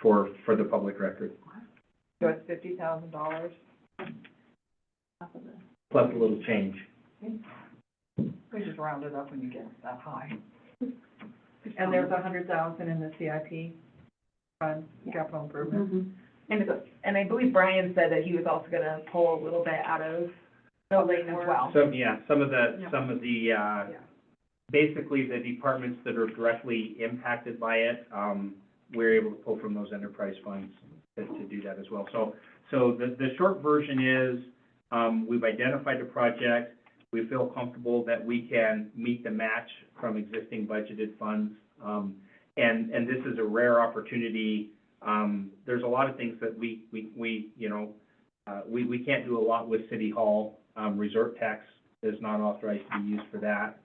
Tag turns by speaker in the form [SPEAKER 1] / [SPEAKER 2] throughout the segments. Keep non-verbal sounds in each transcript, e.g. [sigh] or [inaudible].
[SPEAKER 1] for, for the public record,
[SPEAKER 2] So it's fifty thousand dollars?
[SPEAKER 1] plus a little change.
[SPEAKER 2] We just round it up when you get that high.
[SPEAKER 3] And there's a hundred thousand in the CIP fund, capital improvement.
[SPEAKER 4] And, it's- and I believe Brian said that he was also gonna pull a little bit out of
[SPEAKER 3] Oh,
[SPEAKER 4] building as well.
[SPEAKER 5] Some, yeah, some of the,
[SPEAKER 3] Yeah.
[SPEAKER 5] some of the, uh,
[SPEAKER 3] Yeah.
[SPEAKER 5] basically the departments that are directly impacted by it, um, we're able to pull from those enterprise funds to, to do that as well. So, so the, the short version is, um, we've identified a project. We feel comfortable that we can meet the match from existing budgeted funds. Um, and, and this is a rare opportunity. Um, there's a lot of things that we, we, we, you know, uh, we, we can't do a lot with City Hall. Um, resort tax is not authorized to be used for that.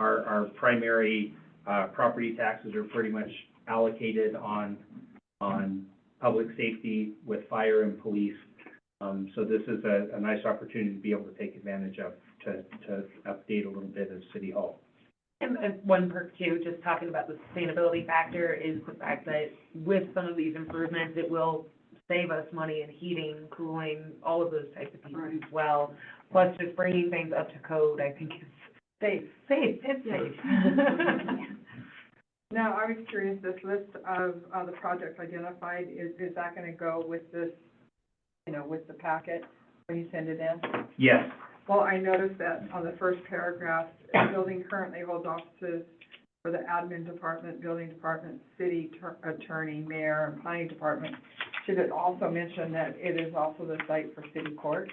[SPEAKER 5] Our, our primary, uh, property taxes are pretty much allocated on, on public safety with fire and police. Um, so this is a, a nice opportunity to be able to take advantage of, to, to update a little bit of City Hall.
[SPEAKER 4] And, and one perk too, just talking about the sustainability factor, is the fact that with some of these improvements, it will save us money in heating, cooling, all of those types of things as well. Plus just bringing things up to code, I think is
[SPEAKER 3] Safe.
[SPEAKER 4] safe, it's
[SPEAKER 3] Yeah.
[SPEAKER 4] safe.
[SPEAKER 3] Now, I was curious, this list of, uh, the projects identified, is, is that gonna go with this,
[SPEAKER 2] You know, with the packet, when you send it in.
[SPEAKER 5] Yes,
[SPEAKER 3] well, I noticed that on the first paragraph,
[SPEAKER 5] [coughs]
[SPEAKER 3] the building currently holds offices for the admin department, building department, city tur- attorney, mayor, and planning department. Should it also mention that it is also the site for city court?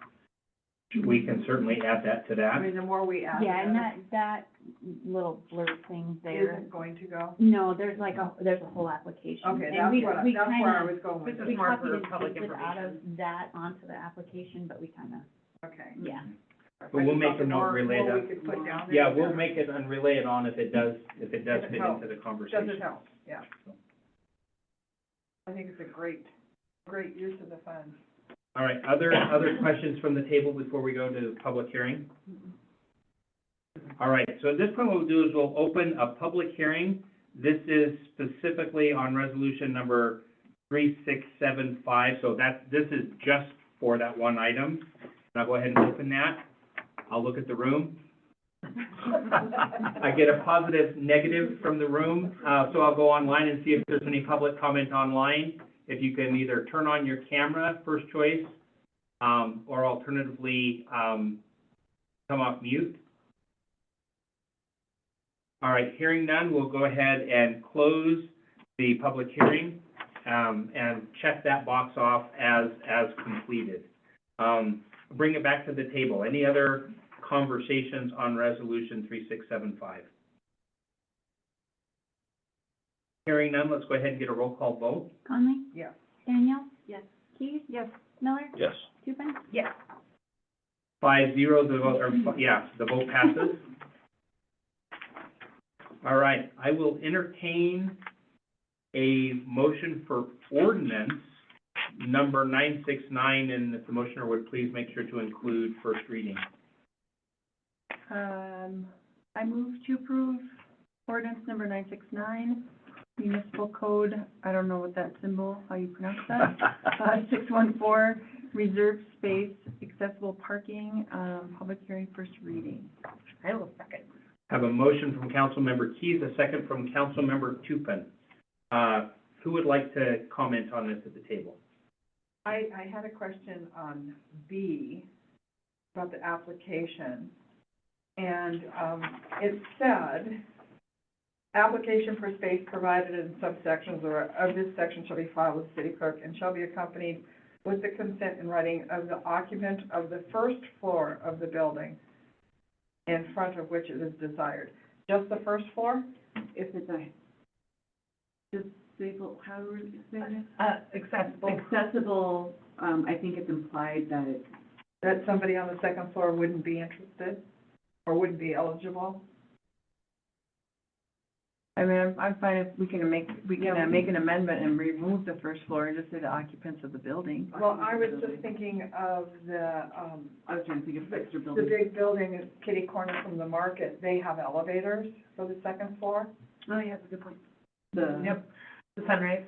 [SPEAKER 4] [laughs]
[SPEAKER 5] we can certainly add that to
[SPEAKER 3] I
[SPEAKER 5] that.
[SPEAKER 3] mean, the more we add
[SPEAKER 6] Yeah, and
[SPEAKER 3] that,
[SPEAKER 6] that, that little blurb thing there,
[SPEAKER 3] isn't going to go?
[SPEAKER 6] no, there's like a, there's a whole application.
[SPEAKER 3] Okay,
[SPEAKER 6] and
[SPEAKER 3] that's
[SPEAKER 6] we-
[SPEAKER 3] what, I-
[SPEAKER 6] we
[SPEAKER 3] that's where I
[SPEAKER 6] kinda-
[SPEAKER 3] was going with
[SPEAKER 4] This
[SPEAKER 3] it,
[SPEAKER 6] We
[SPEAKER 4] is more
[SPEAKER 6] copied
[SPEAKER 4] for
[SPEAKER 6] and
[SPEAKER 4] public
[SPEAKER 6] pasted out of
[SPEAKER 4] information.
[SPEAKER 6] that onto the application, but we kind of,
[SPEAKER 3] okay.
[SPEAKER 6] yeah.
[SPEAKER 5] But we'll make a note, relay
[SPEAKER 3] More
[SPEAKER 5] that.
[SPEAKER 3] we could put down there.
[SPEAKER 5] Yeah, we'll make it and relay it on if it does, if it does
[SPEAKER 3] If it
[SPEAKER 5] fit
[SPEAKER 3] helps.
[SPEAKER 5] into the conversation.
[SPEAKER 3] Doesn't help, yeah. I think it's a great, great use of the funds.
[SPEAKER 5] All right, other, other questions from the table before we go to public hearing? All right, so at this point, what we'll do is we'll open a public hearing. This is specifically on resolution number three, six, seven, five, so that, this is just for that one item. And I'll go ahead and open that. I'll look at the room. [laughs] I get a positive, negative from the room, uh, so I'll go online and see if there's any public comment online if you can either turn on your camera, first choice, um, or alternatively, um, come off mute. All right, hearing none, we'll go ahead and close the public hearing, um, and check that box off as, as completed. Um, bring it back to the table. Any other conversations on resolution three six seven five? Hearing none, let's go ahead and get a roll call vote.
[SPEAKER 6] Conley?
[SPEAKER 3] Yes.
[SPEAKER 6] Daniel?
[SPEAKER 3] Yes.
[SPEAKER 6] Keith? Yes. Miller?
[SPEAKER 7] Yes.
[SPEAKER 6] Tupin?
[SPEAKER 5] Five zero, the vote, or, yeah, the vote passes. All right, I will entertain a motion for ordinance number nine six nine, and if the motioner would please make sure to include first reading.
[SPEAKER 8] Um, I move to approve ordinance number nine six nine, municipal code, I don't know what that symbol, how you pronounce
[SPEAKER 4] [laughs]
[SPEAKER 8] that. Uh, six one four, reserve space, accessible parking, um, public hearing, first reading.
[SPEAKER 4] I will second.
[SPEAKER 5] Have a motion from Councilmember Keys, a second from Councilmember Tupin. Uh, who would like to comment on this at the table?
[SPEAKER 3] I, I had a question on B, about the application. And, um, it said, application for space provided in subsections or of this section shall be filed with city clerk and shall be accompanied with the consent in writing of the occupant of the first floor of the building in front of which it is desired. Just the first floor?
[SPEAKER 8] If it's a. Disabled, how do we say it?
[SPEAKER 4] Uh, accessible.
[SPEAKER 8] Accessible, um, I think it's implied that it's.
[SPEAKER 3] That somebody on the second floor wouldn't be interested or wouldn't be eligible?
[SPEAKER 8] I mean, I'm, I'm fine if we can make, we can uh, make an amendment and remove the first floor and just say the occupants of the building.
[SPEAKER 3] Well, I was just thinking of the, um,
[SPEAKER 8] I was trying to think of extra
[SPEAKER 3] the big building at kitty corner from the market, they have elevators for the second floor.
[SPEAKER 8] Oh, yeah, that's a good point. The.
[SPEAKER 4] Yep. The sunrise.